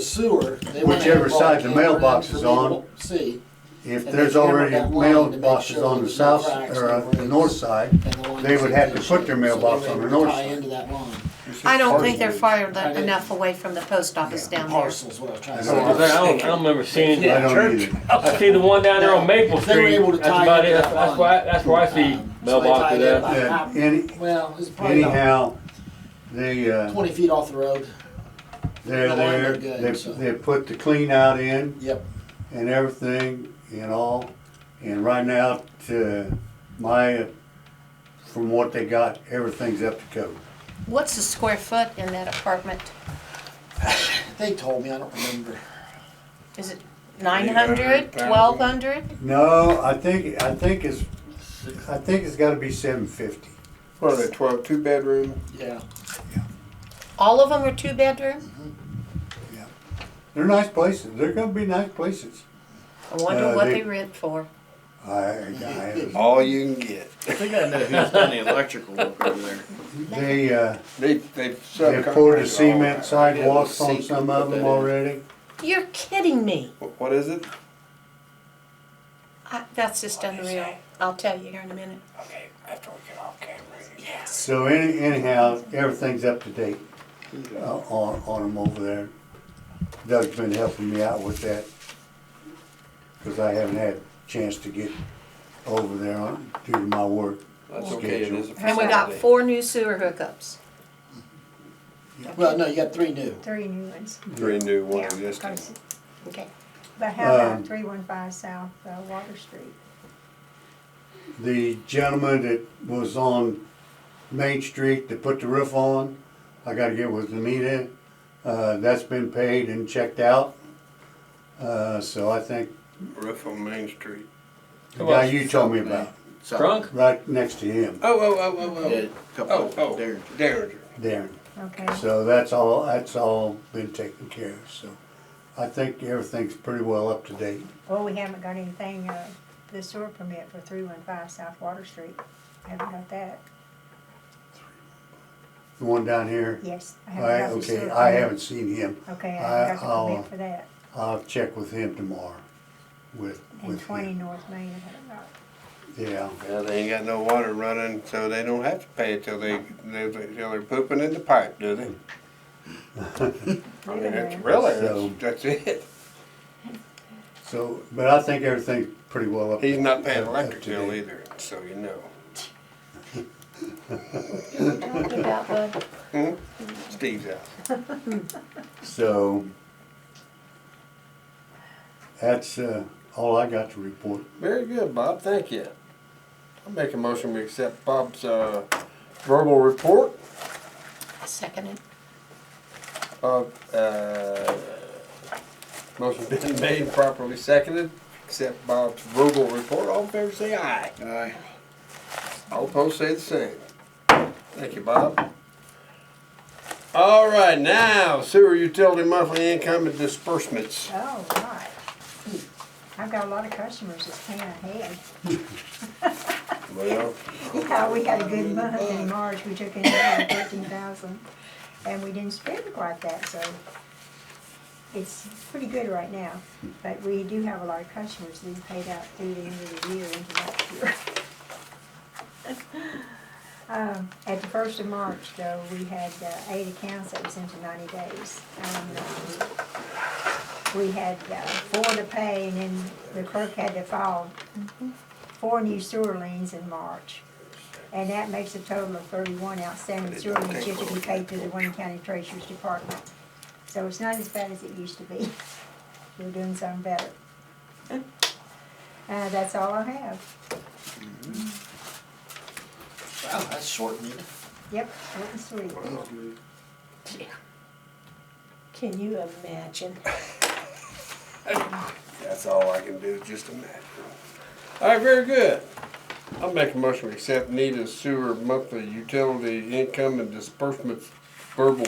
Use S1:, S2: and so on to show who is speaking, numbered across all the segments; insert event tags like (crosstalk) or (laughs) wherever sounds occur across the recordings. S1: sewer. they went
S2: Whichever
S1: and
S2: side the
S1: bought camera
S2: mailbox
S1: down for me
S2: is
S1: to
S2: on.
S1: See,
S2: If
S1: And
S2: there's
S1: they never
S2: already
S1: got one to make
S2: mailboxes
S1: sure
S2: on the
S1: there's no
S2: south,
S1: cracks,
S2: or
S1: no
S2: uh, the
S1: breaks.
S2: north side,
S1: and the one
S2: They
S1: that's
S2: would
S1: in
S2: have
S1: good
S2: to put their
S1: shape, so they
S2: mailbox
S1: were
S2: on the
S1: able to
S2: north
S1: Tie
S2: side.
S1: into that line,
S3: I don't think they're far
S1: I didn't-
S3: enough away from the post office down there.
S1: parcels, what I was trying to
S2: I
S1: say.
S2: know.
S4: I don't, I don't remember seeing
S2: I
S4: that.
S2: don't either.
S4: I see the one down there on Maple
S1: If they were
S4: Street.
S1: able to
S4: That's
S1: tie
S4: about
S1: it
S4: it.
S1: up
S4: That's, that's
S1: on-
S4: why, that's where I see
S1: Um, so they tied
S4: mailboxes
S1: it
S4: at.
S1: up.
S2: And any,
S1: Well, it's (laughs) probably about
S2: anyhow, the, uh,
S1: twenty feet off the road,
S2: they're
S1: The line
S2: there,
S1: looked good,
S2: they,
S1: so.
S2: they put the clean out in
S1: yep,
S2: and everything and all. And right now, to my, from what they got, everything's up to code.
S3: What's the square foot in that apartment?
S1: they told me, I don't remember.
S3: Is it 900, 1200?
S2: No, I think, I think it's, I think it's gotta be seven fifty.
S5: What are they, 12, two bedroom?
S1: Yeah,
S3: All of them are two bedroom?
S2: They're nice places, they're gonna be nice places.
S3: I wonder
S2: Uh,
S3: what
S2: they-
S3: they rent for.
S2: I, uh, I,
S5: All you can get.
S6: I think I know who's done the electrical work over there.
S2: they, uh,
S5: They, they've.
S2: they poured the cement sidewalks
S6: Yeah, the
S2: on some
S6: secret
S2: of
S6: that
S2: them
S6: is.
S2: already.
S3: You're kidding me.
S5: What is it?
S3: I, that's just unreal. I'll tell you here in a minute.
S5: Okay, after we get off camera.
S3: Yes.
S2: So any, anyhow, everything's up to date uh, on, on them over there. Doug's been helping me out with that. Cause I haven't had a chance to get over there on, due to my work.
S5: That's okay, it is a
S3: And we got
S5: facility.
S3: four new sewer hookups.
S1: well, no, you got three new.
S7: Three new ones.
S5: Three new, one
S7: Yeah,
S5: existing.
S7: because-
S3: Okay.
S7: But how
S2: Um,
S7: about three one five south, uh, Water Street?
S2: The gentleman that was on Main Street that put the roof on, I gotta get with Anita. Uh, that's been paid and checked out. Uh, so I think
S5: Roof on Main Street.
S2: the guy you told me about,
S6: So-
S4: Drunk?
S2: right next to him,
S5: Oh, oh, oh, oh,
S6: Yeah, couple
S5: Oh, oh,
S6: of there.
S5: Derringer.
S2: Darren.
S7: Okay,
S2: So that's all, that's all been taken care of, so I think everything's pretty well up to date.
S7: well, we haven't got anything, uh, the sewer permit for three one five South Water Street. Haven't got that.
S2: The one down here,
S7: Yes. I haven't
S2: I,
S7: got the
S2: okay,
S7: sewer
S2: I
S7: permit.
S2: haven't seen him.
S7: Okay, I
S2: I-
S7: haven't got
S2: I'll-
S7: the permit for that.
S2: I'll check with him tomorrow with,
S7: And
S2: with
S7: twenty
S2: him.
S7: North Main, I haven't got.
S2: Yeah,
S5: Now, they ain't got no water running, so they don't have to pay it till they, they, till they're pooping in the pipe, do they? I mean, it's really,
S2: So-
S5: that's, that's it.
S2: so, but I think everything's pretty well up.
S5: He's not paying
S2: up- up
S5: electric
S2: to
S5: bill
S2: date.
S5: either, so you know.
S3: Talking about the-
S5: Steve's out.
S2: So that's, uh, all I got to report.
S5: Very good, Bob, thank you. I'll make a motion we accept Bob's, uh, verbal report
S3: I second it.
S5: of, uh, motion been (laughs) made, properly seconded, accept Bob's verbal report, all in favor say aye.
S6: Aye.
S5: All opposed say the same. Thank you, Bob. All right, now sewer utility monthly income and disbursements.
S7: Oh, right. I've got a lot of customers that's paying ahead.
S5: Well,
S7: (laughs) Yeah, we had a good month in March, we took in thirteen thousand, and we didn't spend quite that, so it's pretty good right now, but we do have a lot of customers that we paid out through the end of the year into next year. (laughs) Um, at the first of March, though, we had uh, eight accounts that was into ninety days, and, um, we had uh, four to pay, and then the clerk had to file four new sewer liens in March. And that makes a total of thirty-one outstanding sewer liens yet to be paid to the Wayne County Treasurer's Department. So it's not as bad as it used to be. (laughs) We're doing something better. Uh, that's all I have.
S1: Wow, that's short meeting.
S7: Yep, short and sweet.
S3: Can you imagine?
S5: that's all I can do, is just imagine. All right, very good. I'll make a motion to accept Nita's sewer monthly utility income and disbursements verbal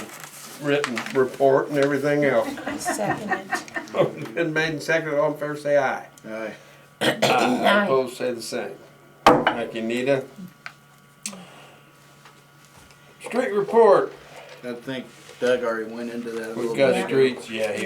S5: written report and everything (laughs) else.
S3: I second it.
S5: Motion Been made and seconded, all in favor say aye.
S6: Aye.
S5: Aye. Opposed, say the same. Thank you, Nita. Street report.
S6: I think Doug already went into that a little
S5: We've
S6: bit.
S5: got streets, yeah, he